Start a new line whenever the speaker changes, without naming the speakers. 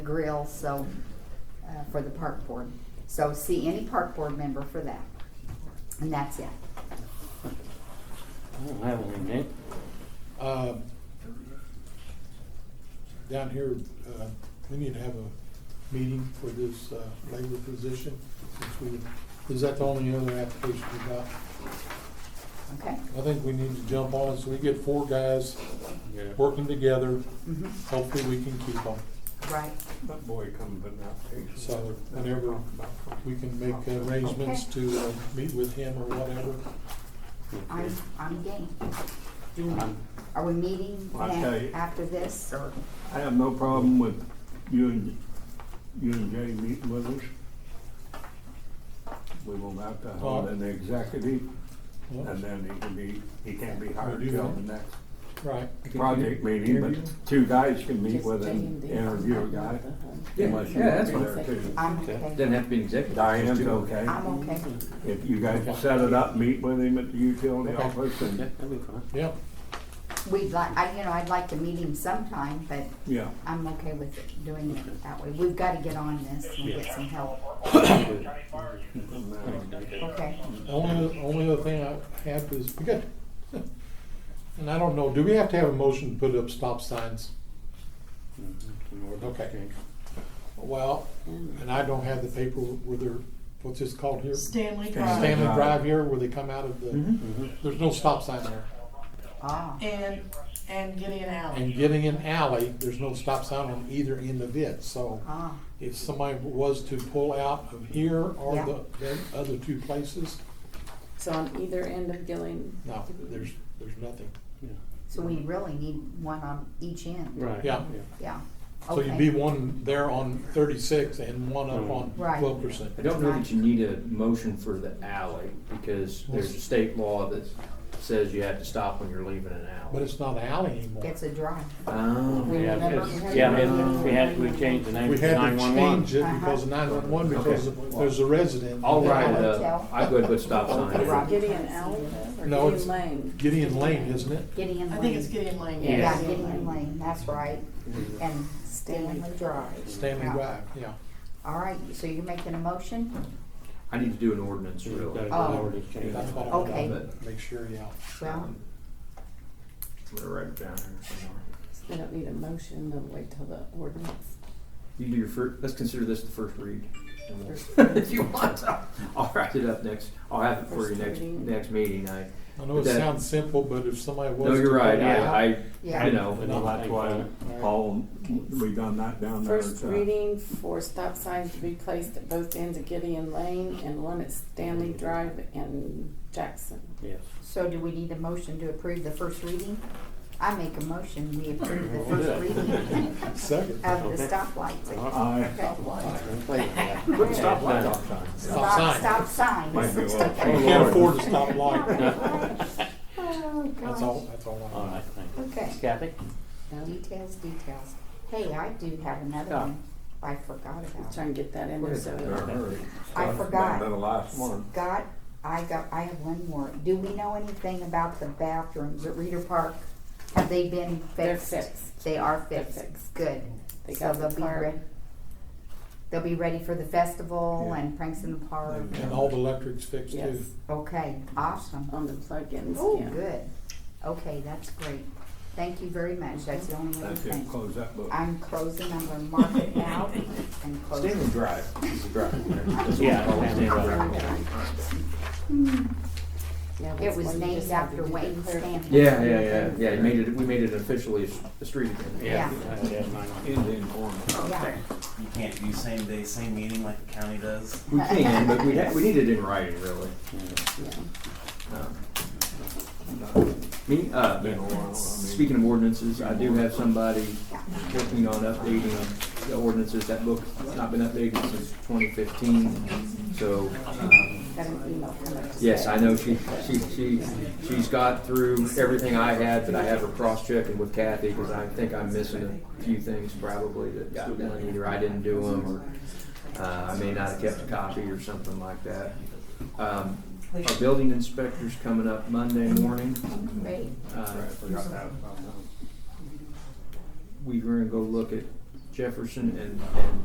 grill, so, uh, for the park board. So see any park board member for that. And that's it.
I don't have anything, Nick.
Uh, Down here, uh, we need to have a meeting for this uh, labor position, since we, is that the only other application we got?
Okay?
I think we need to jump on, it so we get four guys working together,
Mhm.
hopefully we can keep them.
Right.
That boy come and out.
So whenever We can make arrangements to uh, meet with him or whatever.
I'm, I'm game. Do you-
I'm-
Are we meeting
Well, I'll tell
now
you.
after this or?
I have no problem with you and, you and Jay meeting with us. We will have to hold an executive, and then he can be, he can be hired till the next
Right.
project meeting, but two guys can meet with an interview a guy. unless you
Yeah,
want
that's
to be there
fine.
too.
I'm
Doesn't
okay.
have to be an executive.
Diane's
Just do it.
okay.
I'm okay.
If you guys set it up, meet with him at the utility
Okay.
office
Yeah,
and,
that'd be fine.
Yep,
We'd like, I, you know, I'd like to meet him sometime, but
yeah.
I'm okay with it- doing it that way. We've gotta get on this and get some help.
uh,
Okay.
only, only other thing I have is, we got, and I don't know, do we have to have a motion to put up stop signs? Okay. Well, and I don't have the paper where they're, what's this called here?
Stanley Drive.
Stanley Drive here, where they come out of the,
Mm-hmm.
Mhm.
there's no stop sign there.
Ah,
And, and Gideon
And
Alley.
getting an alley, there's no stop sign on either end of it, so
ah,
if somebody was to pull out of here or
Yeah.
the, the other two places,
So on either end of Gillian.
no, there's, there's nothing.
Yeah.
so we really need one on each end.
Right.
Yeah.
Yeah.
So you'd
Okay. Mm-hmm.
be one there on thirty-six and one up on
Right.
twelve percent.
I don't know that you need a motion for the alley, because there's a state law that says you have to stop when you're leaving an alley.
But it's not an alley anymore.
It's a drive.
Oh,
Yeah,
Remember-
because- yeah, it- we had, we changed the name
We
to
had to change
911.
it because nine-one-one, because there's a resident.
I'll write it
Alley.
Hotel.
up. uh, I go ahead and put a stop sign.
Right.
Gideon Alley or
No, it's-
Gideon Lane?
Gideon Lane, isn't it?
Gideon Lane.
I think it's Gideon Lane.
Yeah.
Yeah,
Yes.
Gideon Lane, that's right. And Stanley Drive.
Stanley
Yeah.
Drive, yeah.
All right, so you're making a motion?
I need to do an ordinance,
So we've
really.
got to already changed.
That's what I
Okay.
wanted to make sure, yeah.
Well,
We're right down here somewhere.
They don't need a motion, they'll wait till the ordinance.
You do your fir, let's consider this the first read. and we'll-
First read.
If you want to, I'll write it up next, I'll have it for you
First
next,
reading.
next meeting. I,
I know it
That-
sounds simple, but if somebody was.
no,
to
you're right,
pull out-
I, I,
yeah.
you know.
Well, that's why Paul, we done that down there.
First
so-
reading for stop signs to be placed at both ends of Gideon Lane and one at Stanley Drive and Jackson.
Yes.
So do we need a motion to approve the first reading? I make a motion, we approve the
We'll do
first
that.
reading
Second.
of the
Okay.
stoplights.
Aye.
Put stop light on.
Stop sign.
Stop
Might be
signs.
well.
You can't afford to stop light.
Oh,
That's all,
gosh.
that's all I
All
want.
right, thanks.
Okay.
Kathy?
Details, details. Hey, I do have another
Yeah.
one I forgot about.
Try and get that in there so.
They're hurry.
I forgot.
Been the last one.
Scott, I got, I have one more. Do we know anything about the bathrooms at Reeder Park? Have they been fixed?
They're fixed.
They are
They're
fixed,
fixed.
good.
They
So
got
they'll
the
be
tarp.
ready. They'll be ready for the festival
Yeah.
and pranks in the park.
And all the electrics fixed too.
Yes,
Okay, awesome.
on the plug-ins,
Oh,
yeah.
good. Okay, that's great. Thank you very much. That's the only other
That's it,
thing.
close that book.
I'm closing, I'm gonna mark it out and close. it.
Drive.
Yeah. Stanley Drive.
Yeah,
It
that's
was
why you
named
just have
after
to do the
Wayne
clear-
Stanley.
Yeah, yeah, yeah, yeah, you made it, we made it officially a s- a street again.
Yeah.
Yeah.
Uh, yeah, 911.
Indian corner.
Yeah.
You can't do same day, same meeting like the county does.
We can, but we, ha- we need it in writing, really.
Yeah.
Um, Me, uh,
Been a while, I mean-
speaking of ordinances, I do have somebody working on updating the ordinances. That book's not been updated since twenty fifteen, so, um,
Got an email from her.
Yes, I know she, she, she, she's got through everything I had, but I have her cross-checking with Kathy, because I think I'm missing a few things probably that got done, either I didn't do them, or, uh, I may not have kept a copy or something like that. Um, our building inspector's coming up Monday morning,
Great.
uh,
Forgot that.
we were gonna go look at Jefferson and, and